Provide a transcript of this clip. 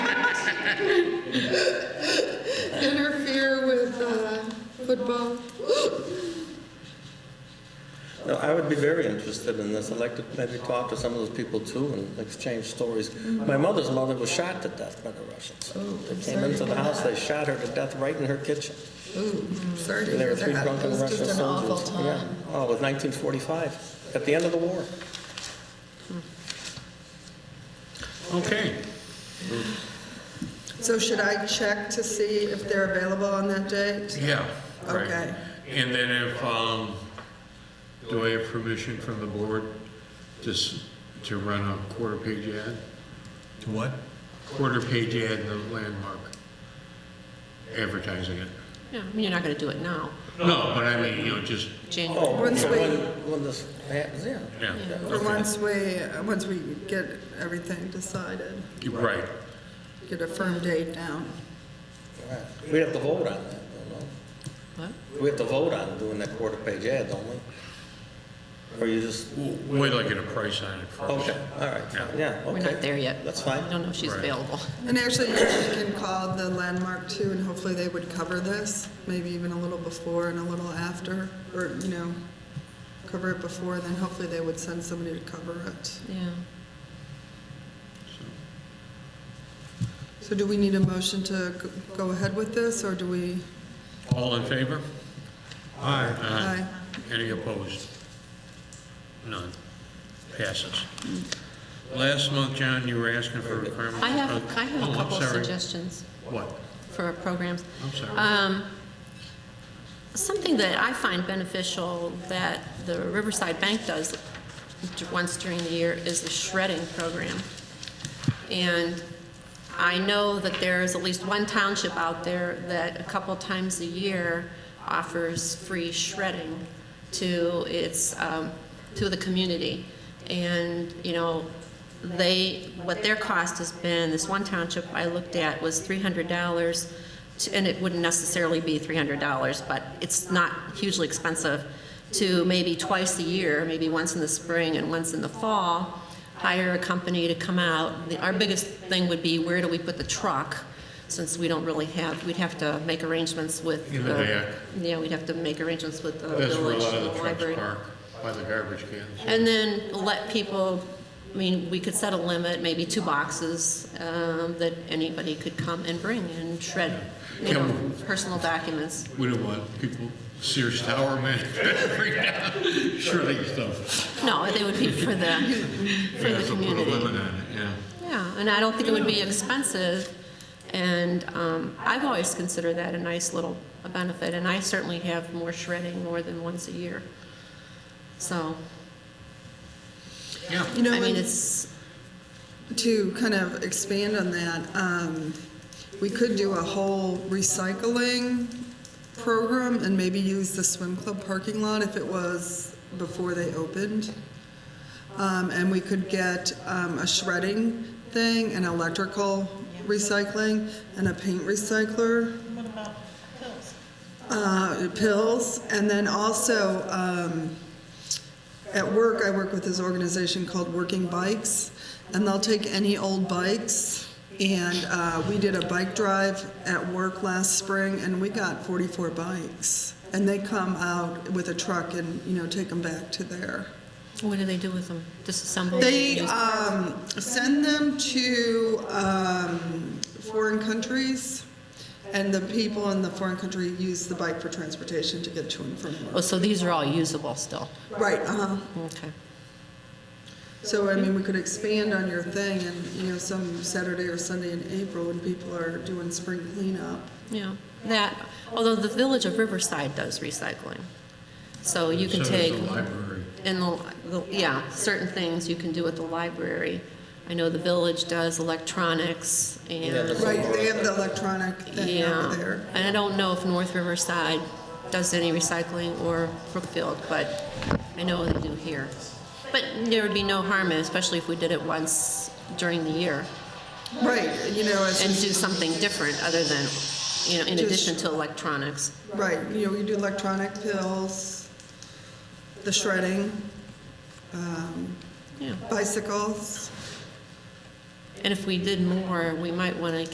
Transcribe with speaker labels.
Speaker 1: uh,
Speaker 2: I would be very interested in this. I'd like to maybe talk to some of those people too and exchange stories. My mother's mother was shot to death by the
Speaker 1: Oh,
Speaker 2: Russians. They came into the house, they shot her to death right in her kitchen.
Speaker 1: Ooh, sorry to
Speaker 2: And there were
Speaker 1: hear
Speaker 2: three
Speaker 1: that. It
Speaker 2: drunken
Speaker 1: was
Speaker 2: Russian
Speaker 1: just an awful
Speaker 2: soldiers. Yeah.
Speaker 1: time.
Speaker 2: Oh, it was 1945, at the end of the war.
Speaker 3: Okay.
Speaker 1: So should I check to see if they're available on that date?
Speaker 3: Yeah, right.
Speaker 1: Okay.
Speaker 3: And then if, um, do I have permission from the board just to run a quarter page ad?
Speaker 4: To what?
Speaker 3: Quarter page ad in the landmark, advertising it.
Speaker 5: Yeah, I mean, you're not gonna do it now,
Speaker 3: No, but I mean, you know, just,
Speaker 5: January.
Speaker 2: Oh,
Speaker 1: Once
Speaker 2: so
Speaker 1: we-
Speaker 2: when, when this happens, yeah.
Speaker 3: yeah,
Speaker 1: Or once we, uh, once we get everything decided,
Speaker 3: You're right.
Speaker 1: get a firm date down.
Speaker 2: Right. We have to vote on that, don't
Speaker 5: What?
Speaker 2: we? We have to vote on doing that quarter page ad, don't we? Or you just,
Speaker 3: Wait till I get a price on it first.
Speaker 2: okay, all right, yeah, okay.
Speaker 5: We're not there yet.
Speaker 2: That's fine.
Speaker 5: I don't know if she's
Speaker 3: Right.
Speaker 5: available.
Speaker 1: And actually, you can call the landmark too, and hopefully they would cover this, maybe even a little before and a little after, or, you know, cover it before, then hopefully they would send somebody to cover it.
Speaker 5: Yeah.
Speaker 1: So do we need a motion to g- go ahead with this, or do we?
Speaker 3: All in favor? Aye.
Speaker 1: Aye.
Speaker 3: Any opposed? None. Passes. Last month, John, you were asking for a requirement.
Speaker 5: I have, I have
Speaker 3: Oh,
Speaker 5: a
Speaker 3: I'm
Speaker 5: couple of
Speaker 3: sorry. Oh.
Speaker 5: suggestions
Speaker 3: What?
Speaker 5: for programs.
Speaker 3: I'm sorry.
Speaker 5: Um, Something that I find beneficial that the Riverside Bank does d- once during the year is the shredding program. And I know that there is at least one township out there that a couple times a year offers free shredding to its, um, to the community. And, you know, they, what their cost has been, this one township I looked at was $300, to- and it wouldn't necessarily be $300, but it's not hugely expensive, to maybe twice a year, maybe once in the spring and once in the fall, hire a company to come out. The- Our biggest thing would be where do we put the truck, since we don't really have, we'd have to make arrangements with.
Speaker 3: In the back.
Speaker 5: Yeah, we'd have to make arrangements with the
Speaker 3: That's where a
Speaker 5: village,
Speaker 3: lot
Speaker 5: the
Speaker 3: of the
Speaker 5: library.
Speaker 3: trucks park, by the garbage cans.
Speaker 5: And then let people, I mean, we could set a limit, maybe two boxes, um, that anybody could come and bring and shred, you
Speaker 3: Yeah.
Speaker 5: know, personal documents.
Speaker 3: We don't want people, Sears Tower man, shredding stuff.
Speaker 5: No, they would be for the, for
Speaker 3: Yeah,
Speaker 5: the
Speaker 3: so Put a limit on
Speaker 5: community.
Speaker 3: it, yeah.
Speaker 5: Yeah, and I don't think it would be expensive, and, um, I've always considered that a nice little benefit, and I certainly have more shredding more than once a year. So,
Speaker 3: Yeah,
Speaker 1: You know,
Speaker 5: I mean,
Speaker 1: and-
Speaker 5: it's,
Speaker 1: To kind of expand on that, um, we could do a whole recycling program and maybe use the swim club parking lot if it was before they opened. Um, and we could get, um, a shredding thing, an electrical recycling, and a paint recycler. What about pills? Uh, pills, and then also, um, at work, I work with this organization called Working Bikes, and they'll take any old bikes. And uh, we did a bike drive at work last spring, and we got 44 bikes. And they come out with a truck and you know take them back to there.
Speaker 5: what do they do with them? Disassemble? them?
Speaker 1: They
Speaker 5: Use-
Speaker 1: um, send them to um, foreign countries, and the people in the foreign country use the bike for transportation to get to and from
Speaker 5: Oh,
Speaker 1: work.
Speaker 5: so these are all usable still?
Speaker 1: Right. Uh huh.
Speaker 5: Okay.
Speaker 1: So, I mean, we could expand on your thing and, you know, some Saturday or Sunday in April when people are doing spring cleanup.
Speaker 5: Yeah, that, although the village of Riverside does recycling. So you
Speaker 3: so
Speaker 5: can
Speaker 3: does
Speaker 5: take,
Speaker 3: the library.
Speaker 5: in the, the- yeah, certain things you can do at the library. I know the village does electronics
Speaker 2: Yeah, that's-
Speaker 5: and,
Speaker 1: Right, they have the electronic thing over
Speaker 5: yeah.
Speaker 1: there.
Speaker 5: And I don't know if North Riverside does any recycling or Brookfield, but I know they do here. But there would be no harm, in it, especially if we did it once during the year
Speaker 1: Right, you know, it's
Speaker 5: and
Speaker 1: just-
Speaker 5: do something different other than, you know, in
Speaker 1: Just-
Speaker 5: addition to electronics.
Speaker 1: right, you know, we do electronic pills, the shredding, um,
Speaker 5: Yeah.
Speaker 1: bicycles.
Speaker 5: And if we did more, we might want to